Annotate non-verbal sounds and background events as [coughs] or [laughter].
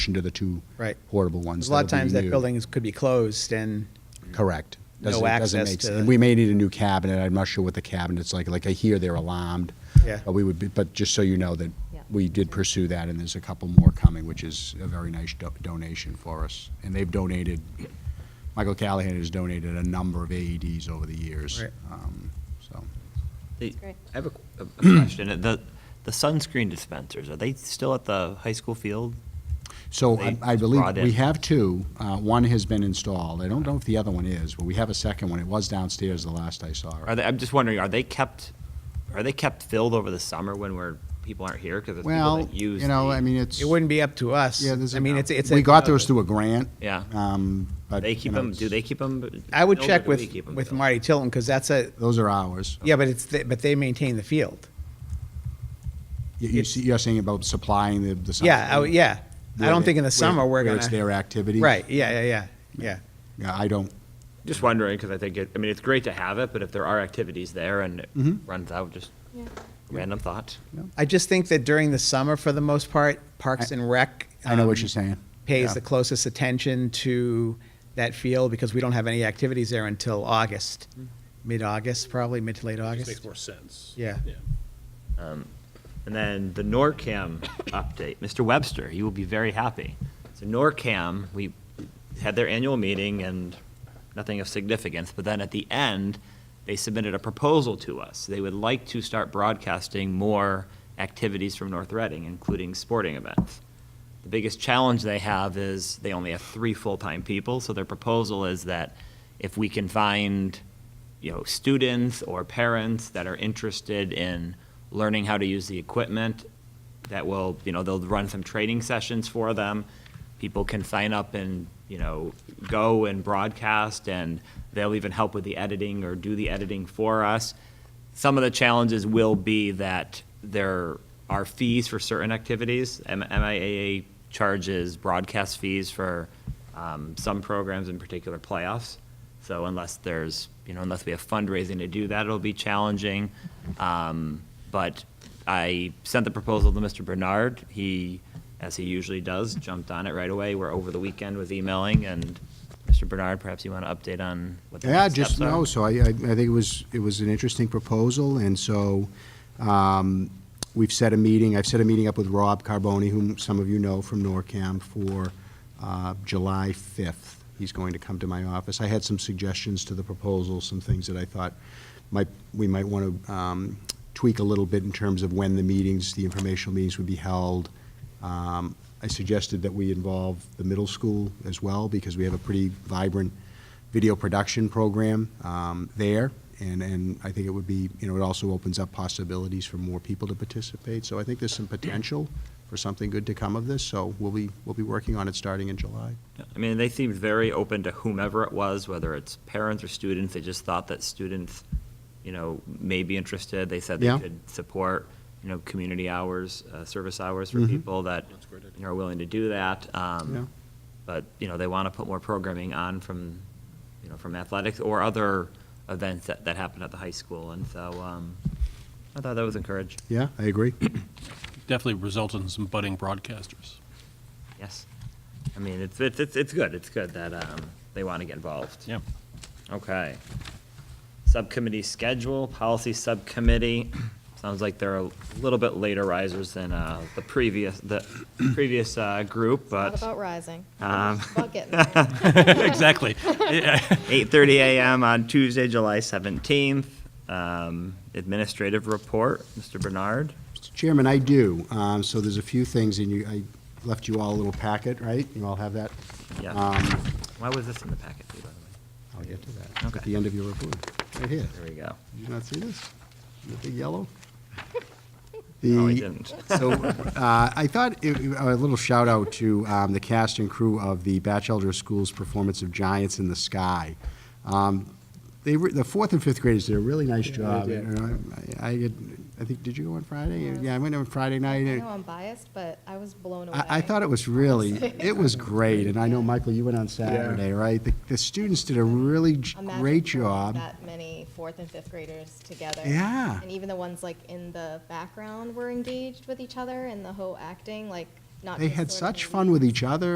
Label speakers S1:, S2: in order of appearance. S1: addition to the two
S2: Right.
S1: portable ones.
S2: There's a lot of
S1: that'll be
S2: times that
S1: new.
S2: buildings could be closed and,
S1: Correct.
S2: No
S1: Doesn't- doesn't
S2: access
S1: make
S2: to
S1: sense.
S2: the-
S1: We may need a new cabinet. I'm not sure what the cabinet's like. Like I hear they're alarmed.
S2: Yeah.
S1: But we would be, but just so you know that
S3: Yeah.
S1: we did pursue that and there's a couple more coming, which is a very nice do- donation for us. And they've donated, Michael Callahan has donated a number of AEDs over the years.
S2: Right.
S1: Um, So,
S4: The-
S3: Great.
S4: I have a qu- a [clears throat] a question. The, the sunscreen dispensers, are they still at the high school field?
S1: so
S4: They
S1: I- I
S4: just
S1: believe
S4: brought
S1: we
S4: in-
S1: have two. Uh, One has been installed. I don't know if the other one is, but we have a second one. It was downstairs the last I saw.
S4: Are they, I'm just wondering, are they kept, are they kept filled over the summer when we're, people aren't here? Because there's people
S1: Well,
S4: that use.
S1: you know,
S4: the-
S1: I mean, it's.
S2: it wouldn't be up to us.
S1: Yeah, there's.
S2: I
S1: a-
S2: mean, it's, it's. a-
S1: We got those through a grant.
S4: Yeah.
S1: Um, but.
S4: They
S1: you
S4: keep
S1: know,
S4: them, do they keep them?
S2: I would check with, with Marty Tilton, because that's a,
S1: Those are ours.
S2: yeah, but it's, the- but they maintain the field.
S1: You- You
S2: it's-
S1: see, you're saying about supplying the, the.
S2: Yeah, I,
S1: something,
S2: yeah. I
S1: where
S2: don't
S1: they-
S2: think in
S1: where-
S2: the summer we're
S1: where
S2: gonna.
S1: It's their activity.
S2: Right, yeah, yeah, yeah, yeah.
S1: Yeah, I don't,
S4: Just wondering, because I think, it- I mean, it's great to have it, but if there are activities there and it
S1: Mhm.
S4: runs out, just
S3: Yeah.
S4: random thought.
S2: I just think that during the summer, for the most part, Parks
S1: I-
S2: and Rec.
S1: I know what
S2: um,
S1: you're saying.
S2: Pays
S1: Yeah.
S2: the closest attention to that field, because we don't have any activities there until August, mid-August, probably, mid to late
S5: Mm-hmm. Just
S2: August.
S5: Makes more sense.
S2: Yeah.
S4: And then the NORCAM [coughs] update, Mr. Webster, you will be very happy. So NORCAM, we had their annual meeting and nothing of significance, but then at the end, they submitted a proposal to us. They would like to start broadcasting more activities from North Reading, including sporting events. The biggest challenge they have is they only have three full-time people, so their proposal is that if we can find, you know, students or parents that are interested in learning how to use the equipment, that will, you know, they'll run some training sessions for them. People can sign up and, you know, go and broadcast, and they'll even help with the editing or do the editing for us. Some of the challenges will be that there are fees for certain activities. M- MIAA charges broadcast fees for um, some programs, in particular playoffs. So unless there's, you know, unless we have fundraising to do that, it'll be challenging. Um, But I sent the proposal to Mr. Bernard. He, as he usually does, jumped on it right away. We're over the weekend with emailing, and Mr. Bernard, perhaps you want to update on what the
S1: Yeah,
S4: next
S1: just
S4: steps are?
S1: no. So I, I I think it was, it was an interesting proposal, and so um, we've set a meeting, I've set a meeting up with Rob Carboni, whom some of you know from NORCAM, for uh, July 5th. He's going to come to my office. I had some suggestions to the proposal, some things that I thought might, we might want to tweak a little bit in terms of when the meetings, the informational meetings would be held. Um, I suggested that we involve the middle school as well, because we have a pretty vibrant video production program um, there, and, and I think it would be, you know, it also opens up possibilities for more people to participate. So I think there's some potential for something good to come of this, so we'll be, we'll be working on it starting in July.
S4: I mean, they seemed very open to whomever it was, whether it's parents or students. They just thought that students, you know, may be interested. They said they
S1: Yeah.
S4: could support, you know, community hours, uh, service hours for
S1: Mhm.
S4: people that
S5: That's a great idea.
S4: you know, are willing to do that. Um,
S1: Yeah.
S4: But, you know, they want to put more programming on from, you know, from athletics or other events that, that happen at the high school. And so um, I thought that was encouraging.
S1: Yeah, I agree.
S5: Definitely resulted in some budding broadcasters.
S4: Yes. I mean, it's, it's, it's it's good. It's good that um, they want to get involved.
S5: Yeah.
S4: Okay. Subcommittee schedule, policy subcommittee. [clears throat] Sounds like they're a little bit later risers than uh, the previous, the previous uh, group,
S3: Not
S4: but
S3: about rising.
S4: Um,
S3: It's about getting there.
S4: [laughs]
S5: Exactly.
S4: 8:30 a.m. on Tuesday, July 17th. Um, Administrative report, Mr. Bernard.
S1: Mr. Chairman, I do. Um, So there's a few things, and you, I left you all a little packet, right? You all have that?
S4: Yeah.
S1: Um,
S4: Why was this in the packet, too, by the
S1: I'll get to that. At
S4: Okay.
S1: the end of your report, right here.
S4: way? There we go.
S1: Did you not see this? The big yellow?
S4: [laughs] No, I
S1: The-
S4: didn't.
S1: So uh, I thought, it- it- a little shout out to um, the cast and crew of the Batchelder School's performance of Giants in the Sky. Um, They, were- the fourth and fifth graders did a really nice job.
S2: did.
S1: And uh, I, I had- I think, did you go on Friday? Yeah, I went on Friday night.
S3: I
S1: and-
S3: know I'm biased, but I was blown away.
S1: I, I thought it was really, it was great, and I know, Michael, you went on Saturday, right? The, the students did a really j-
S3: Imagine
S1: great
S3: throwing
S1: job.
S3: That many fourth and fifth graders together.
S1: Yeah.
S3: And even the ones like in the background were engaged with each other and the whole acting, like not
S1: They
S3: just
S1: had
S3: sort of
S1: such
S3: a
S1: fun with each other